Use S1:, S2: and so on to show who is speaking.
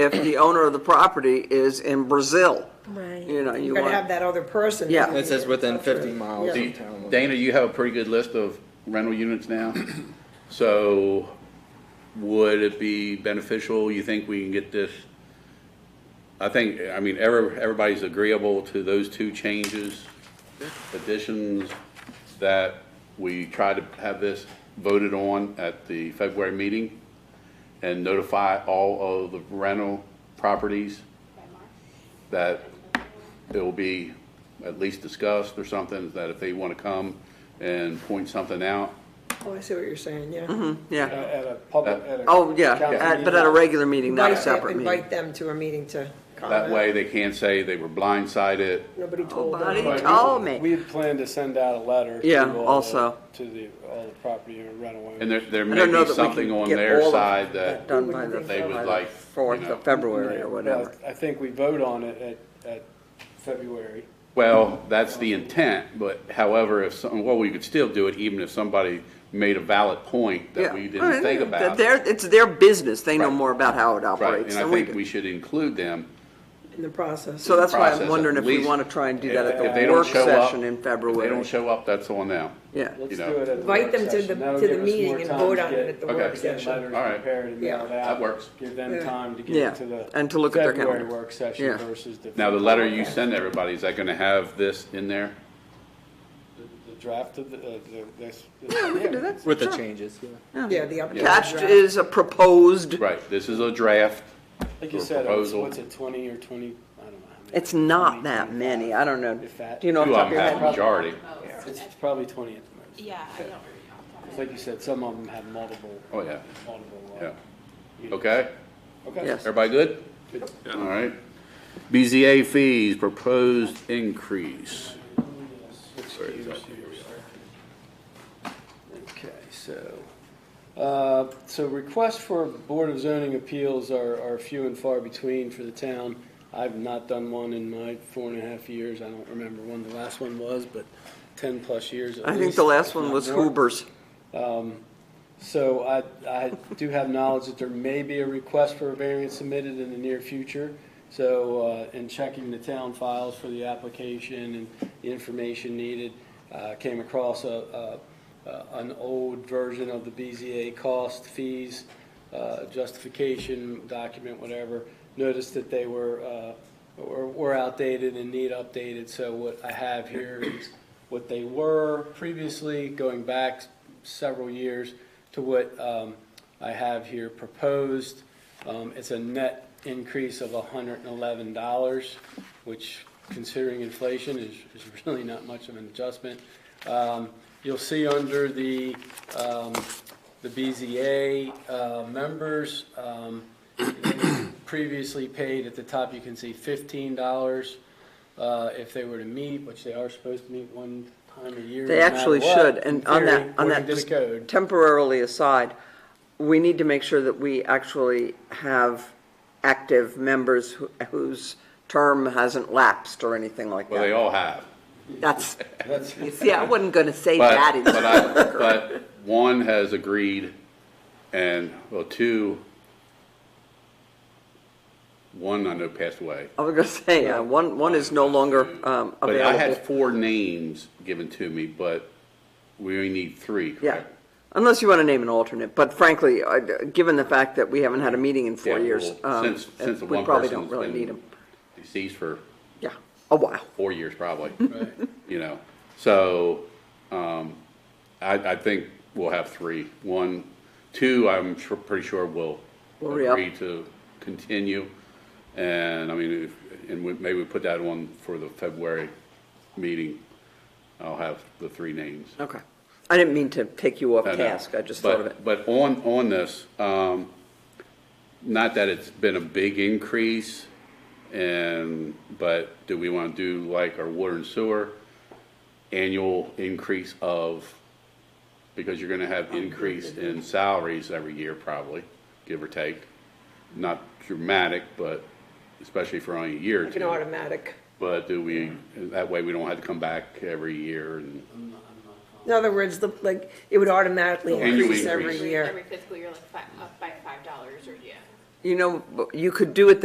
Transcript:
S1: if the owner of the property is in Brazil.
S2: Right.
S1: You know, you
S3: You're gonna have
S1: want,
S3: that other person.
S1: Yeah.
S4: It says within 50 miles
S3: Yeah.
S4: of town. limits.
S5: Dana, you have a pretty good list of rental units now. So would it be beneficial, you think we can get this? I think, I mean, every, everybody's agreeable to those two changes, additions, that we try to have this voted on at the February meeting and notify all of the rental properties that it will be at least discussed or something, that if they want to come and point something out,
S3: Oh, I see what you're saying, yeah.
S1: yeah.
S6: At a public, at a.
S1: Oh, yeah,
S6: council
S1: at- but
S6: meeting.
S1: at a regular meeting, not a
S3: Invite them-
S1: separate meeting.
S3: Invite them to a meeting to
S1: Oh,
S3: comment.
S5: that way they can't say they were blindsided.
S3: Nobody told
S1: Nobody
S3: them.
S6: But we-
S1: told me.
S6: We had planned to send out a letter. to
S1: Oh, Yeah,
S6: all the-
S1: also.
S6: To the, all the property owner rental
S5: And
S6: owners.
S5: there, there
S1: I
S5: may
S1: don't know that
S5: be
S1: we
S5: something
S1: can
S5: on
S1: get
S5: their
S1: all of
S5: side that,
S1: Done by the,
S5: they would
S1: by the
S5: like,
S1: fourth
S5: you know.
S1: of February or whatever.
S6: I think we vote on it at, at February.
S5: well, that's the intent, but however, if some, well, we could still do it even if somebody made a valid point that
S1: Yeah.
S5: we
S1: I mean,
S5: didn't think
S1: that
S5: about.
S1: Their, it's their business, they know
S5: Right.
S1: more about how it
S5: Right,
S1: operates
S5: and I
S1: than we
S5: think
S1: do.
S5: we should include them.
S3: In the process.
S1: So that's why
S5: process
S1: I'm
S5: at
S1: wondering if we
S5: least.
S1: want to try and do
S5: If-
S1: that at
S5: if
S1: the
S5: they don't
S1: work
S5: show up-
S1: session in
S5: If they don't
S1: February.
S5: show up, that's on them.
S1: Yeah,
S6: Let's
S5: You
S6: do
S5: know.
S6: it at the
S3: Invite
S6: work
S3: them to the-
S6: session. That'll
S3: to the
S6: give us
S3: meeting
S6: more
S3: and
S6: time
S3: vote
S6: to
S3: on it
S6: get-
S3: at the
S5: Okay. work
S6: Get
S3: session.
S6: letters
S5: All right.
S6: prepared and
S3: Yeah.
S6: mailed out.
S5: That works.
S6: Give them time to
S1: Yeah,
S6: get to the.
S1: and to look at their calendar.
S6: February work session
S1: Yeah.
S6: versus the.
S5: Now, the letter you send everybody, is that gonna have this in there?
S6: The- The draft of the, of the, this.
S1: we can do that.
S4: With the
S1: Sure.
S4: changes, yeah.
S3: Yeah, the updated
S1: Attached
S3: draft.
S1: is a proposed,
S5: Right, this is a draft.
S6: Like you
S5: Or
S6: said, what's
S5: proposal.
S6: what's it, twenty or twenty, I don't know. how many.
S1: it's not
S6: 20,
S1: that
S6: 25.
S1: many, I don't know.
S6: If that-
S1: Do you know off
S5: Two
S1: the
S5: of
S1: top of
S5: them
S1: your
S5: have
S1: head?
S5: a majority.
S6: It's probably twenty at the most.
S7: Yeah, I don't really know.
S6: It's Like you said, some of them have multiple.
S5: Oh, yeah.
S6: Multiple. uh,
S5: Yeah.
S6: units.
S5: Okay?
S6: Okay.
S1: Yes.
S5: Everybody good? All right. BZA fees, proposed increase.
S6: uh, Excuse us here. Okay, so, uh, so requests for Board of Zoning Appeals are, are few and far between for the town. I've not done one in my four and a half years. I don't remember when the last one was, but ten-plus years at
S1: I think
S6: least,
S1: the last
S6: if
S1: one
S6: not
S1: was
S6: more.
S1: Huber's.
S6: So I, I do have knowledge that there may be a request for a variance submitted in the near future. So, uh, in checking the town files for the application and the information needed, uh, came across a, a, a- an old version of the BZA cost fees, uh, justification document, whatever. Noticed that they were, uh, were were outdated and need updated, so what I have here is what they were previously, going back several years to what um, I have here proposed. Um, It's a net increase of $111, which considering inflation is is really not much of an adjustment. Um, You'll see under the, um, the BZA uh, members, um, previously paid, at the top you can see $15 uh, if they were to meet, which they are supposed to meet one time a year.
S1: They
S6: no matter
S1: actually
S6: what,
S1: should,
S6: in
S1: and on
S6: theory,
S1: that, on
S6: according
S1: that,
S6: to the
S1: just
S6: code.
S1: temporarily aside, we need to make sure that we actually have active members who- whose term hasn't lapsed or anything like
S5: Well, they
S1: that.
S5: all have.
S1: That's,
S6: That's-
S1: see, I wasn't gonna say that.
S5: But,
S1: in-
S5: but I, but one has agreed and, well, two, one I know passed away.
S1: I was gonna say, uh, one, one is no longer um,
S5: But I had
S1: available.
S5: four names given to me, but we only need three,
S1: Yeah,
S5: correct?
S1: unless you wanna name an alternate, but frankly, I- given the fact that we haven't had a meeting in four
S5: Yeah,
S1: years,
S5: well,
S1: um,
S5: Since, since the
S1: we
S5: one
S1: probably
S5: person's
S1: don't really
S5: been
S1: need them.
S5: Deceased for
S1: Yeah, a while.
S5: four years probably,
S6: Right.
S5: you know, so, um, I, I think we'll have three. One, two, I'm sure, pretty sure will
S1: Will re-up.
S5: agree to continue. And I mean, if, and we, maybe we put that on for the February meeting. I'll have the three names.
S1: Okay. I didn't mean to take you off
S5: No, no.
S1: task, I just thought of it.
S5: But but on, on this, um, not that it's been a big increase, and, but do we want to do like our water and sewer? Annual increase of, because you're going to have
S1: Oh,
S5: increase in salaries every year probably, give or take. Not dramatic, but especially for only a year or
S3: Like an
S5: two.
S3: automatic.
S5: But do we, that way we don't have to come back every year and,
S3: In other words, the, like, it would automatically
S5: Annual
S3: increase every
S5: increase.
S3: year.
S7: Every fiscal year, like, fi- up by five dollars, or, yeah.
S1: you know, you could do it